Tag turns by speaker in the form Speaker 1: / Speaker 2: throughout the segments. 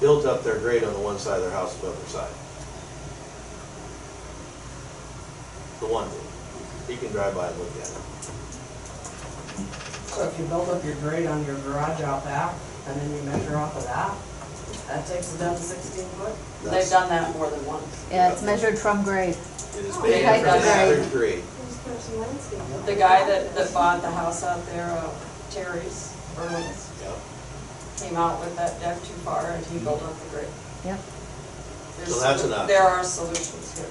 Speaker 1: built up their grade on the one side of their house and the other side. The one did. He can drive by and look at it.
Speaker 2: So if you build up your grade on your garage out back, and then you measure off of that, that takes it down to sixteen foot? They've
Speaker 1: That's-
Speaker 2: done that more than once.
Speaker 3: Yeah, it's measured from grade.
Speaker 1: It is
Speaker 4: Oh,
Speaker 1: made
Speaker 2: okay,
Speaker 1: from
Speaker 2: that's
Speaker 1: another
Speaker 3: right.
Speaker 1: grade.
Speaker 4: There's there's some landscaping.
Speaker 2: The guy that, that bought the house out there, uh, Terry's, Berlin's,
Speaker 1: Yep.
Speaker 2: came out with that deck too far and he built up the grade.
Speaker 3: Yep.
Speaker 2: There's-
Speaker 1: that's an option.
Speaker 2: There are solutions here.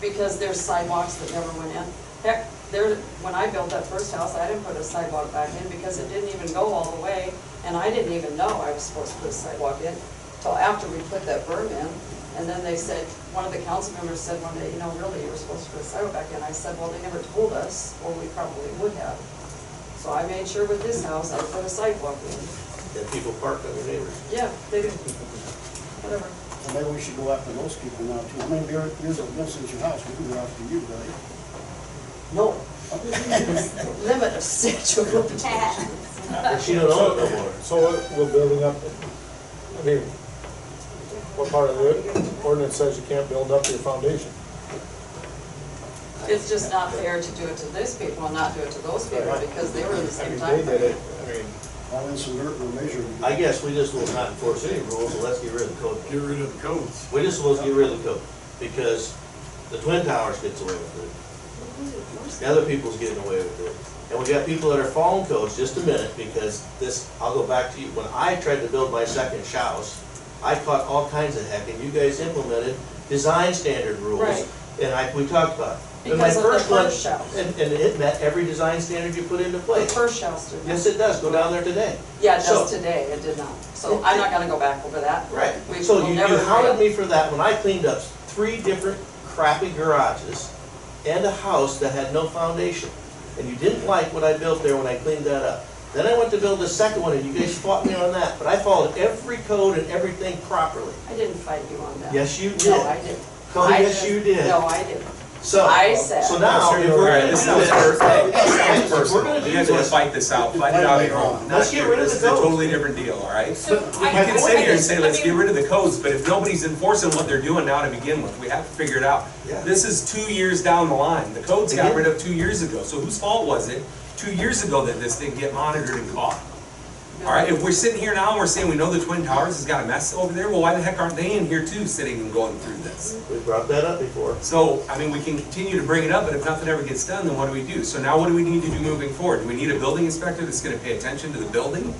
Speaker 2: Because there's sidewalks that never went in. Heck, there, when I built that first house, I didn't put a sidewalk back in because it didn't even go all the way. And I didn't even know I was supposed to put a sidewalk in till after we put that berm in. And then they said, one of the council members said one day, you know, really, you were supposed to put a sidewalk back in. I said, well, they never told us, or we probably would have. So I made sure with this house, I put a sidewalk in.
Speaker 1: And people park on their neighbors.
Speaker 2: Yeah, they did, whatever.
Speaker 5: Well, Maybe we should go after those people now too. I mean, years years have been since your house, we can go after you, buddy.
Speaker 2: No. Limit of statute of limitations.
Speaker 1: And she don't own it no more.
Speaker 6: So what we're building up, I mean, what part of the ordinance says you can't build up to your foundation?
Speaker 2: It's just not fair to do it to these people and not do it to those people because they were in the
Speaker 6: I
Speaker 2: same
Speaker 6: mean,
Speaker 2: time.
Speaker 6: they did
Speaker 2: frame.
Speaker 6: it, I mean,
Speaker 5: All in some dirt, we're measuring.
Speaker 1: I guess we just will not enforce any rules, so let's get rid of the code.
Speaker 7: Get rid of the codes.
Speaker 1: We just supposed to get rid of the code, because the Twin Towers gets away with it, the other people's getting away with it. And we got people that are following codes, just a minute, because this, I'll go back to you, when I tried to build my second house, I caught all kinds of heck, and you guys implemented design standard rules.
Speaker 2: Right.
Speaker 1: And I, we talked about. it. And my
Speaker 2: Because of the
Speaker 1: one-
Speaker 2: first house.
Speaker 1: And, and it met every design standard you put into
Speaker 2: The
Speaker 1: place.
Speaker 2: first house did
Speaker 1: Yes,
Speaker 2: not.
Speaker 1: it does, go down there today.
Speaker 2: Yeah, just
Speaker 1: So-
Speaker 2: today, it did not. So I'm not gonna go back over that.
Speaker 1: Right,
Speaker 2: We
Speaker 1: so
Speaker 2: will
Speaker 1: you, you
Speaker 2: never
Speaker 1: hounded
Speaker 2: fail.
Speaker 1: me for that when I cleaned up three different crappy garages and a house that had no foundation. And you didn't like what I built there when I cleaned that up. Then I went to build the second one and you guys fought me on that, but I followed every code and everything properly.
Speaker 2: I didn't fight you on that.
Speaker 1: Yes, you
Speaker 2: No, I
Speaker 1: did.
Speaker 2: didn't.
Speaker 1: Oh,
Speaker 2: I
Speaker 1: yes, you
Speaker 2: didn't.
Speaker 1: did.
Speaker 2: No, I didn't.
Speaker 1: So,
Speaker 2: I said-
Speaker 1: so now, if we're gonna do
Speaker 8: This sounds
Speaker 1: this,
Speaker 8: personal. This
Speaker 1: hey,
Speaker 8: sounds
Speaker 1: if we're gonna
Speaker 8: personal.
Speaker 1: do
Speaker 8: You guys wanna
Speaker 1: this-
Speaker 8: fight this out, fight it out at home.
Speaker 1: Let's get rid of the
Speaker 8: This is a
Speaker 1: codes.
Speaker 8: totally different deal, all right?
Speaker 4: So
Speaker 8: We
Speaker 4: I-
Speaker 8: can
Speaker 4: I-
Speaker 8: sit here
Speaker 4: I
Speaker 8: and say,
Speaker 4: think-
Speaker 8: let's
Speaker 4: I
Speaker 8: get
Speaker 4: mean-
Speaker 8: rid of the codes, but if nobody's enforcing what they're doing now to begin with, we have to figure it out.
Speaker 1: Yeah.
Speaker 8: This is two years down the line. The codes
Speaker 1: They
Speaker 8: got
Speaker 1: did.
Speaker 8: rid of two years ago, so whose fault was it two years ago that this didn't get monitored and caught? All right, if we're sitting here now and we're saying we know the Twin Towers has got a mess over there, well, why the heck aren't they in here too, sitting and going through this?
Speaker 1: we brought that up before.
Speaker 8: So, I mean, we can continue to bring it up, but if nothing ever gets done, then what do we do? So now what do we need to do moving forward? Do we need a building inspector that's gonna pay attention to the building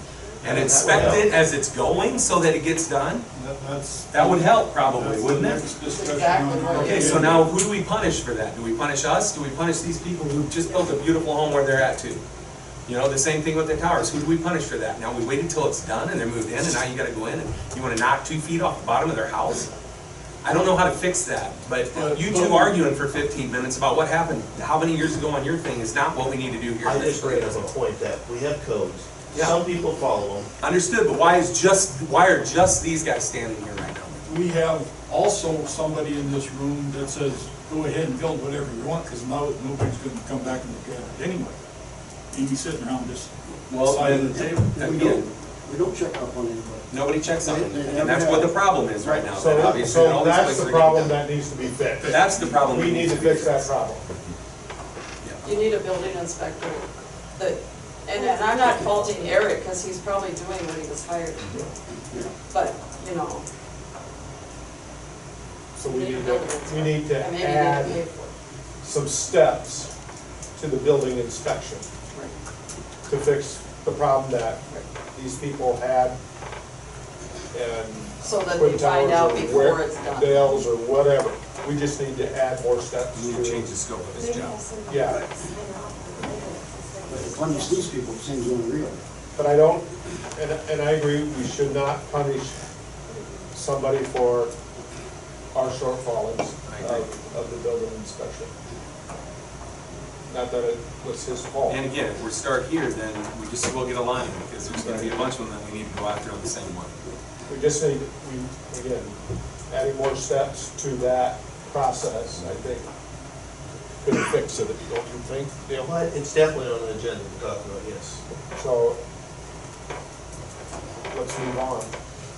Speaker 8: and inspect it as it's going so that it gets done?
Speaker 7: That- That's.
Speaker 8: That would help
Speaker 7: that's
Speaker 8: probably,
Speaker 7: the
Speaker 8: wouldn't it?
Speaker 7: next discussion
Speaker 2: Exactly
Speaker 7: on
Speaker 2: right.
Speaker 7: how to
Speaker 8: Okay,
Speaker 7: do
Speaker 8: so
Speaker 7: it.
Speaker 8: now who do we punish for that? Do we punish us? Do we punish these people who just built a beautiful home where they're at too? You know, the same thing with the towers. Who do we punish for that? Now we waited till it's done and they're moved in and now you gotta go in and you wanna knock two feet off the bottom of their house? I don't know how to fix that, but you two arguing for fifteen minutes about what happened, how many years ago on your thing is not what we need to do here.
Speaker 1: I just bring up a point that we have codes,
Speaker 8: Yeah.
Speaker 1: some people follow them,
Speaker 8: Understood, but why is just, why are just these guys standing here right now?
Speaker 7: We have also somebody in this room that says, go ahead and build whatever you want, because now nobody's gonna come back and look at it anyway. And you sitting around this
Speaker 8: Well,
Speaker 7: side
Speaker 8: then-
Speaker 7: of the table.
Speaker 5: We don't, we don't check up on anybody.
Speaker 8: Nobody checks on them, and that's what the problem is right now. That
Speaker 6: so,
Speaker 8: obviously in
Speaker 6: so
Speaker 8: all these
Speaker 6: that's
Speaker 8: places
Speaker 6: the
Speaker 8: are getting
Speaker 6: problem
Speaker 8: done.
Speaker 6: that needs to be fixed.
Speaker 8: That's the problem.
Speaker 6: We need to fix that problem.
Speaker 2: You need a building inspector that, and and I'm not faulting Eric because he's probably doing what he was hired to do. But, you know,
Speaker 6: So we need to, we need to
Speaker 2: I mean, you need to pay
Speaker 6: add
Speaker 2: for it.
Speaker 6: some steps to the building inspection
Speaker 2: Right.
Speaker 6: to fix the problem that these people had and
Speaker 2: So that
Speaker 6: Twin
Speaker 2: they find
Speaker 6: Towers
Speaker 2: out
Speaker 6: or
Speaker 2: before
Speaker 6: Wick-
Speaker 2: it's done.
Speaker 6: Dales or whatever. We just need to add more steps
Speaker 8: We need to change the
Speaker 6: to,
Speaker 8: scope of
Speaker 4: Maybe
Speaker 8: his job.
Speaker 4: have some-
Speaker 6: Yeah.
Speaker 5: But to punish these people seems unreal.
Speaker 6: but I don't, and, and I agree, we should not punish somebody for our shortfalls
Speaker 8: I agree.
Speaker 6: of, of the building inspection. Not that it was his fault.
Speaker 8: And again, if we start here, then we just will get a line, because there's gonna be a bunch of them that we need to go after on the same one.
Speaker 6: We just need, we, again, adding more steps to that process, I think, could fix it, don't you think, Dale?
Speaker 1: but it's definitely on the agenda to talk about, yes.
Speaker 6: So, let's move on.